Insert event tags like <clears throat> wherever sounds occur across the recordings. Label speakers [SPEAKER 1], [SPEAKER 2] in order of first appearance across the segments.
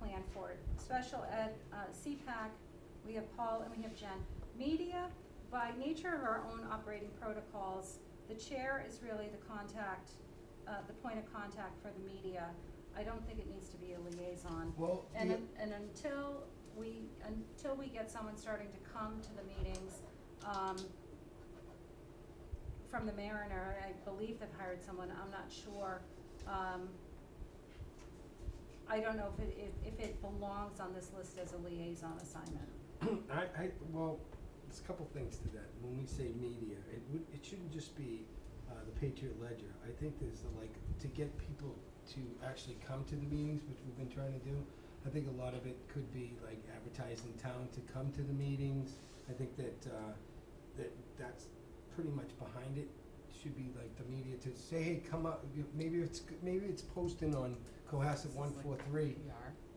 [SPEAKER 1] Langford. Special Ed, uh, CPAC, we have Paul and we have Jen. Media, by nature of our own operating protocols, the chair is really the contact, uh, the point of contact for the media. I don't think it needs to be a liaison.
[SPEAKER 2] Well,
[SPEAKER 1] And,
[SPEAKER 2] the-
[SPEAKER 1] un- and until we, until we get someone starting to come to the meetings, um, from the Mariner, I believe they've hired someone, I'm not sure, um, I don't know if it, if, if it belongs on this list as a liaison assignment.
[SPEAKER 2] <clears throat> I, I, well, there's a couple things to that. When we say media, it would, it shouldn't just be, uh, the Patriot Ledger. I think there's the, like, to get people to actually come to the meetings, which we've been trying to do. I think a lot of it could be like advertising town to come to the meetings. I think that, uh, that, that's pretty much behind it. Should be like the media to say, hey, come up, You- maybe it's, g- maybe it's posting on Cohasset one four three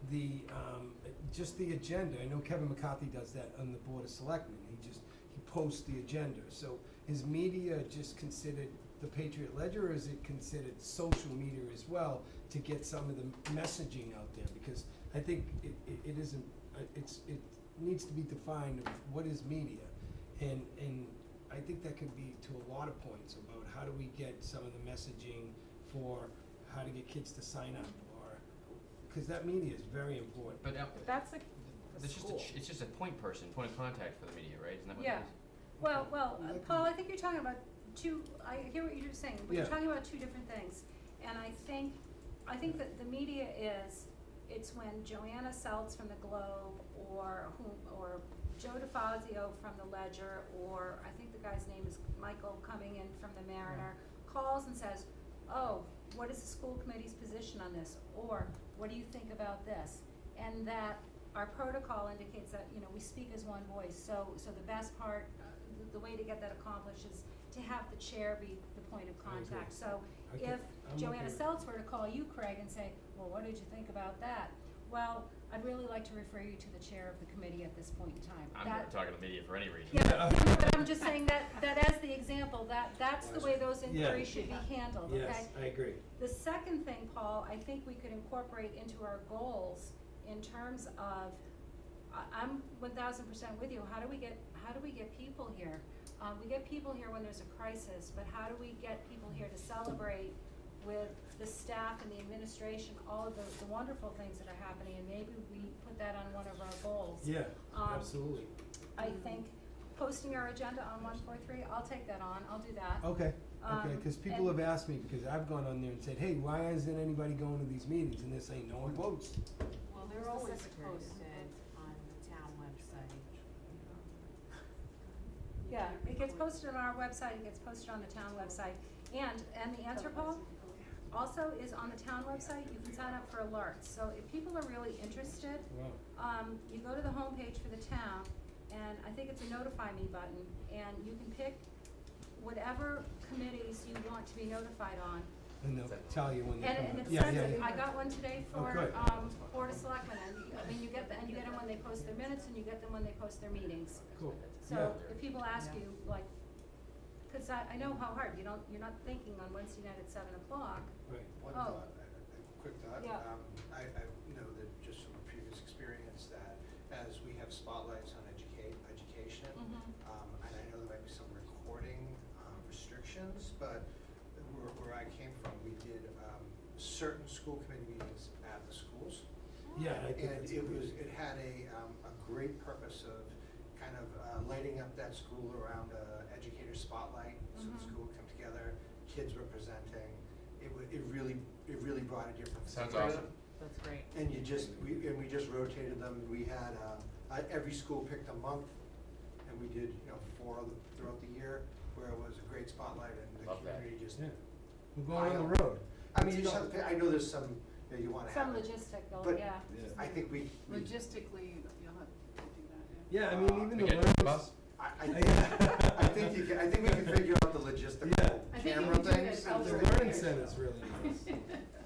[SPEAKER 2] the, um, just the agenda, I know Kevin McCarthy does that on the Board of Selectmen, he just, he posts the agenda, so is media just considered the Patriot Ledger, or is it considered social media as well, to get some of the messaging out there, because I think it, it, it isn't, uh, it's, it needs to be defined of what is media, and, and I think that could be to a lot of points about how do we get some of the messaging for how to get kids to sign up, or, because that media is very important.
[SPEAKER 3] But now,
[SPEAKER 4] That's a,
[SPEAKER 3] it's just a, ch- it's just a point person, point of contact for the media, right? Isn't that what it
[SPEAKER 1] Yeah.
[SPEAKER 3] is?
[SPEAKER 1] Well, well, uh,
[SPEAKER 2] Well, that
[SPEAKER 1] Paul,
[SPEAKER 2] can-
[SPEAKER 1] I think you're talking about two, I hear what you're saying, but you're
[SPEAKER 2] Yeah.
[SPEAKER 1] talking about two different things. And I think, I think that the media is, it's when Joanna Seltz from the Globe or whom, or Joe DeFazio from the Ledger, or I think the guy's name is Michael coming in from the Mariner, calls and says, oh, what is the school committee's position on this? Or, what do you think about this? And that our protocol indicates that, you know, we speak as one voice, so, so the best part, uh, the, the way to get that accomplished is to have the chair be the point of
[SPEAKER 2] I agree.
[SPEAKER 1] contact. So
[SPEAKER 2] I can-
[SPEAKER 1] if
[SPEAKER 2] I'm okay
[SPEAKER 1] Joanna
[SPEAKER 2] with
[SPEAKER 1] Seltz were to call you, Craig, and say, well, what did you think about that? Well, I'd really like to refer you to the chair of the committee at this point in time.
[SPEAKER 3] I'm
[SPEAKER 1] That-
[SPEAKER 3] not talking to the media for any reason.
[SPEAKER 1] yeah, but, no, but I'm just saying that, that as the example, that, that's the way those
[SPEAKER 2] Yeah.
[SPEAKER 1] inquiries should be handled, okay?
[SPEAKER 2] Yes, I agree.
[SPEAKER 1] The second thing, Paul, I think we could incorporate into our goals in terms of, I, I'm one thousand percent with you, how do we get, how do we get people here? Uh, we get people here when there's a crisis, but how do we get people here to celebrate with the staff and the administration, all of the, the wonderful things that are happening, and maybe we put that on one of our goals.
[SPEAKER 2] Yeah,
[SPEAKER 1] Um,
[SPEAKER 2] absolutely.
[SPEAKER 1] I think posting our agenda on one four three, I'll take that on, I'll do that.
[SPEAKER 2] Okay, okay,
[SPEAKER 1] um,
[SPEAKER 2] because people
[SPEAKER 1] and-
[SPEAKER 2] have asked me, because I've gone on there and said, hey, why isn't anybody going to these meetings? And they're saying, no one votes.
[SPEAKER 5] Well,
[SPEAKER 4] It's
[SPEAKER 5] they're
[SPEAKER 4] the
[SPEAKER 5] always
[SPEAKER 4] secretary that
[SPEAKER 5] posted on the town website. You
[SPEAKER 1] Yeah,
[SPEAKER 5] can't
[SPEAKER 1] it gets
[SPEAKER 5] record-
[SPEAKER 1] posted on our website, it gets posted on the town website, and, and the answer poll also is on the town website, you can sign up for alerts, so if people are really interested,
[SPEAKER 2] Wow.
[SPEAKER 1] um, you go to the homepage for the town, and I think it's a notify me button, and you can pick whatever committees you want to be notified on.
[SPEAKER 2] And they'll tell you when they
[SPEAKER 1] And,
[SPEAKER 2] come
[SPEAKER 1] and
[SPEAKER 2] up.
[SPEAKER 1] it's
[SPEAKER 2] Yeah, yeah,
[SPEAKER 1] sensitive,
[SPEAKER 2] yeah.
[SPEAKER 1] I got one today
[SPEAKER 2] Oh,
[SPEAKER 1] for,
[SPEAKER 2] good.
[SPEAKER 1] um, Board of Selectmen, and, you- I mean, you get, the- and you get them when they post their minutes, and you get them when they post their meetings.
[SPEAKER 2] Cool.
[SPEAKER 1] So
[SPEAKER 2] Yeah.
[SPEAKER 1] if people ask you, like, cause I, I know how hard, you don't, you're not thinking on Wednesday night at seven o'clock.
[SPEAKER 2] Right.
[SPEAKER 6] One
[SPEAKER 1] Oh.
[SPEAKER 6] thought, a a quick thought.
[SPEAKER 1] Yeah.
[SPEAKER 6] Um, I, I know that just from previous experience that as we have spotlights on educate, education,
[SPEAKER 1] Mhm.
[SPEAKER 6] um, and I know there might be some recording, um, restrictions, but where, where I came from, we did, um, certain school committee meetings at the schools.
[SPEAKER 2] Yeah, I think
[SPEAKER 6] And
[SPEAKER 2] that's a
[SPEAKER 6] it
[SPEAKER 2] good
[SPEAKER 6] was,
[SPEAKER 2] idea.
[SPEAKER 6] it had a, um, a great purpose of kind of uh, lighting up that school around a educator spotlight, so
[SPEAKER 1] Mhm.
[SPEAKER 6] the school would come together, kids were presenting. It wa- it really, it really brought a different.
[SPEAKER 3] Sounds
[SPEAKER 6] flavor.
[SPEAKER 3] awesome.
[SPEAKER 5] That's great.
[SPEAKER 6] And you just, we, and we just rotated them, we had, uh, uh, every school picked a month, and we did, you know, four of them throughout the year, where it was a great spotlight and the
[SPEAKER 3] Love that.
[SPEAKER 6] community just.
[SPEAKER 2] Yeah. We're going on the road.
[SPEAKER 6] I mean, you just have to, pay- I know there's some, you know, you wanna have.
[SPEAKER 1] Some
[SPEAKER 6] it,
[SPEAKER 1] logistical,
[SPEAKER 6] But-
[SPEAKER 1] yeah.
[SPEAKER 6] I think we, we
[SPEAKER 4] logistically, you'll have to do that, yeah.
[SPEAKER 2] Yeah, I mean, even the
[SPEAKER 3] We get a
[SPEAKER 2] learners, <laughs>
[SPEAKER 3] bus,
[SPEAKER 6] I, I think, I think you can, I think we can <laughs> figure out the
[SPEAKER 2] Yeah.
[SPEAKER 6] logistical
[SPEAKER 1] I think you
[SPEAKER 6] camera
[SPEAKER 1] can do
[SPEAKER 6] things.
[SPEAKER 1] that
[SPEAKER 6] and
[SPEAKER 2] the
[SPEAKER 1] elsewhere.
[SPEAKER 6] things.
[SPEAKER 2] learning center's really nice.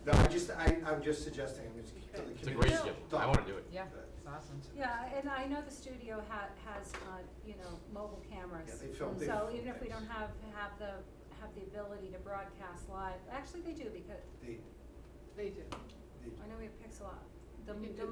[SPEAKER 6] No, I just, I, I'm just suggesting, I'm just. keep to the
[SPEAKER 3] it's a great
[SPEAKER 6] community.
[SPEAKER 3] skill,
[SPEAKER 6] Done.
[SPEAKER 3] I wanna do it.
[SPEAKER 4] Yeah, it's awesome.
[SPEAKER 1] Yeah, and I know the studio ha- has, uh, you know, mobile
[SPEAKER 6] Yeah,
[SPEAKER 1] cameras.
[SPEAKER 6] they film, they.
[SPEAKER 1] So
[SPEAKER 6] film
[SPEAKER 1] even if we
[SPEAKER 6] things.
[SPEAKER 1] don't have, have the, have the ability to broadcast live, actually <laughs> they do because,
[SPEAKER 6] They,
[SPEAKER 4] They do.
[SPEAKER 6] they
[SPEAKER 1] I know we have Pixel, the,
[SPEAKER 4] You can
[SPEAKER 1] the
[SPEAKER 4] do